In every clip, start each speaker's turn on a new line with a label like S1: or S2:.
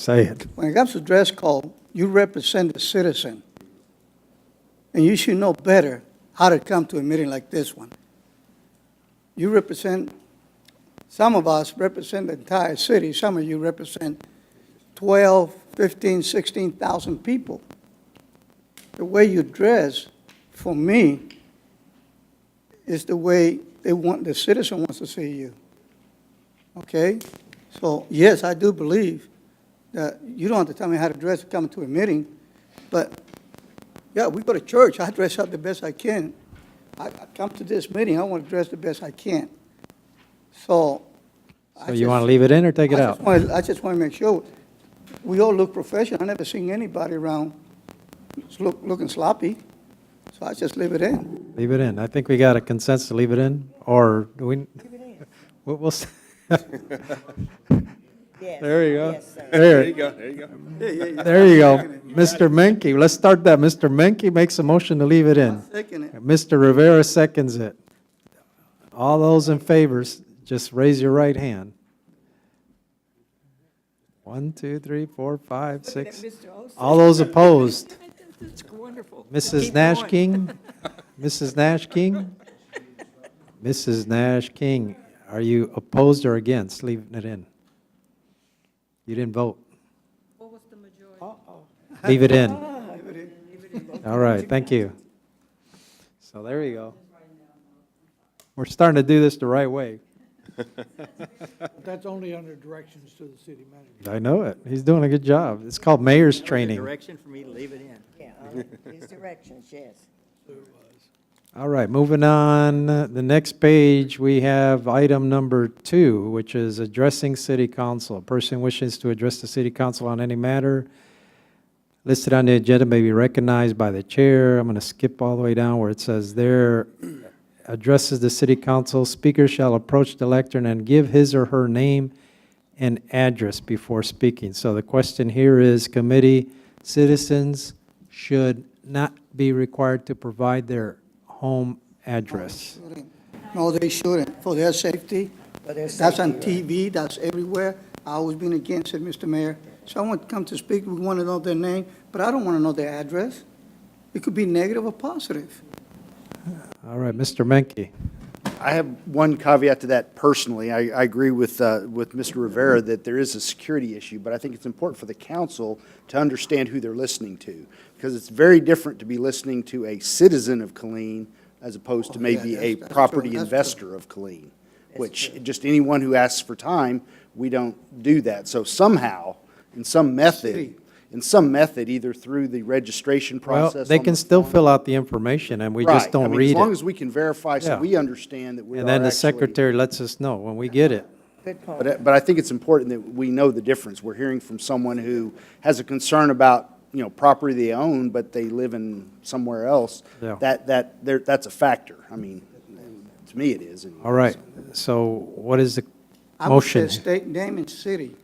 S1: Say it.
S2: When it comes to dress code, you represent the citizen. And you should know better how to come to a meeting like this one. You represent, some of us represent the entire city, some of you represent 12, 15, 16,000 people. The way you dress, for me, is the way they want, the citizen wants to see you. Okay? So, yes, I do believe that you don't have to tell me how to dress to come to a meeting, but, yeah, we go to church, I dress up the best I can. I, I come to this meeting, I want to dress the best I can. So. I
S1: So you want to
S2: just-
S1: leave it in or take it
S2: I just
S1: out?
S2: wanna- I just want to make sure, we all look professional, I never seen anybody around s- look, looking sloppy, so I just leave it in.
S1: Leave it in. I think we got a consensus to leave it in, or do we? We'll, we'll s-
S3: Yes.
S1: there you go.
S3: yes, sir.
S4: There
S1: There,
S4: you go, there you go.
S1: there you go. Mr. Menke, let's start that. Mr. Menke makes a motion to leave it in.
S2: Second it.
S1: Mr. Rivera seconds it. All those in favor, s- just raise your right hand. One, two, three, four, five, six. All those opposed?
S5: That's wonderful.
S1: Mrs.
S5: Keep
S1: Nash
S5: going.
S1: King? Mrs. Nash King? Mrs. Nash King, are you opposed or against leaving it in? You didn't vote. What was the majority? Leave it in. All right, thank you. So there you go. We're starting to do this the right way.
S6: That's only under directions to the city manager.
S1: I know it. He's doing a good job. It's called mayor's training.
S7: Direction for me to leave it in.
S3: Yeah, all these directions, yes.
S1: All right, moving on. The next page, we have item number two, which is addressing city council. A person wishes to address the city council on any matter listed on the agenda may be recognized by the chair. I'm going to skip all the way down where it says there. Addresses the city council, speaker shall approach the lectern and give his or her name and address before speaking. So the question here is, committee, citizens should not be required to provide their home address.
S2: No, they shouldn't, for their safety.
S3: For their
S2: That's on
S3: safety,
S2: TV, that's everywhere. I always been against it, Mr. Mayor. Someone come to speak, we want to know their name, but I don't want to know their address. It could be negative or positive.
S1: All right, Mr. Menke.
S8: I have one caveat to that personally. I, I agree with, uh, with Mr. Rivera that there is a security issue, but I think it's important for the council to understand who they're listening to. Because it's very different to be listening to a citizen of Colleen as opposed to
S2: Oh, yeah, that's-
S8: maybe a
S2: that's true,
S8: property
S2: that's true.
S8: investor of Colleen. Which, just anyone who asks for time, we don't do that. So somehow, in some method, in some method, either through the registration
S1: Well,
S8: process.
S1: they
S8: on
S1: can
S8: the
S1: still
S8: phone-
S1: fill out the information, and we just
S8: Right. I
S1: don't
S8: mean,
S1: read
S8: As long as
S1: it.
S8: we can verify, so
S1: Yeah.
S8: we understand that we are
S1: And then the
S8: actually-
S1: secretary lets us know when we get it.
S3: Good point.
S8: But, uh, I- but I think it's important that we know the difference. We're hearing from someone who has a concern about, you know, property they own, but they live in somewhere else.
S1: Yeah.
S8: That, that, there, that's a factor. I mean, to me it is. anyway.
S1: All right, so what is the
S2: I would say
S1: motion?
S2: State, name, and city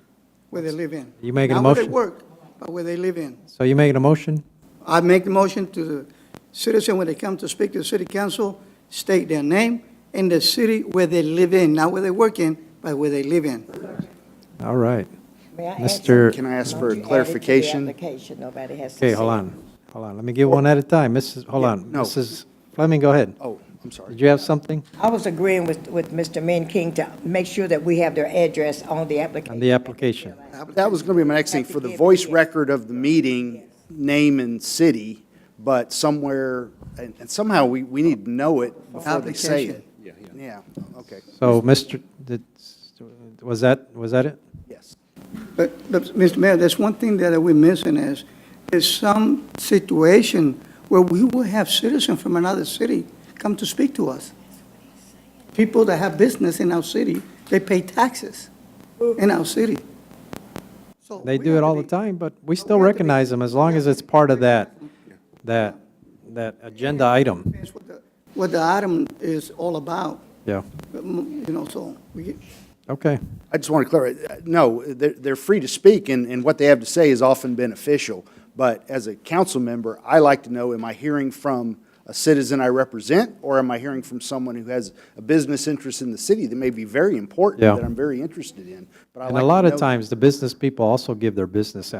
S2: where they live in.
S1: You making a
S2: Not
S1: motion?
S2: where they work, but where they live in.
S1: So you making a motion?
S2: I make the motion to the citizen when they come to speak to the city council, state their name and the city where they live in, not where they work in, but where they live in.
S1: All right.
S3: May I add
S1: Mr.
S3: something?
S8: Can I ask
S3: Don't
S8: for
S3: you add it to the
S8: clarification?
S3: application, nobody has to
S1: Okay,
S3: see
S1: hold
S3: it.
S1: on, hold on. Let me get one at a time. Mrs., hold
S8: Yeah,
S1: on.
S8: no.
S1: Mrs. Fleming, go ahead.
S8: Oh, I'm sorry.
S1: Did you have something
S3: I was agreeing with, with Mr. Min King to make sure that we have their address on the
S1: on
S3: application.
S1: the application?
S8: That was gonna be my next thing. For the voice record of the meeting, name and city, but somewhere, and, and somehow we, we need to know it before they say it.
S4: Yeah, yeah.
S8: Yeah, okay,
S1: So, Mr., did- was that, was that it?
S8: yes.
S2: But, but, Mr. Mayor, there's one thing that we're missing is, is some situation where we will have citizens from another city come to speak to us. People that have business in our city, they pay taxes in our city. So
S1: They
S2: we
S1: do
S2: have
S1: it
S2: to
S1: all the
S2: be-
S1: time, but we
S2: we
S1: still
S2: have to be-
S1: recognize them as long as it's part of that, that, that agenda item.
S2: That's what the- What the item is all about,
S1: Yeah,
S2: you know, so we,
S1: okay.
S8: I just want to clarify, no, they're, they're free to speak, and, and what they have to say is often beneficial. But as a council member, I like to know, am I hearing from a citizen I represent, or am I hearing from someone who has a business interest in the city that may be very important,
S1: Yeah.
S8: that I'm very interested in? But I
S1: And
S8: like
S1: a
S8: to
S1: lot of
S8: know-
S1: times, the business people also give their business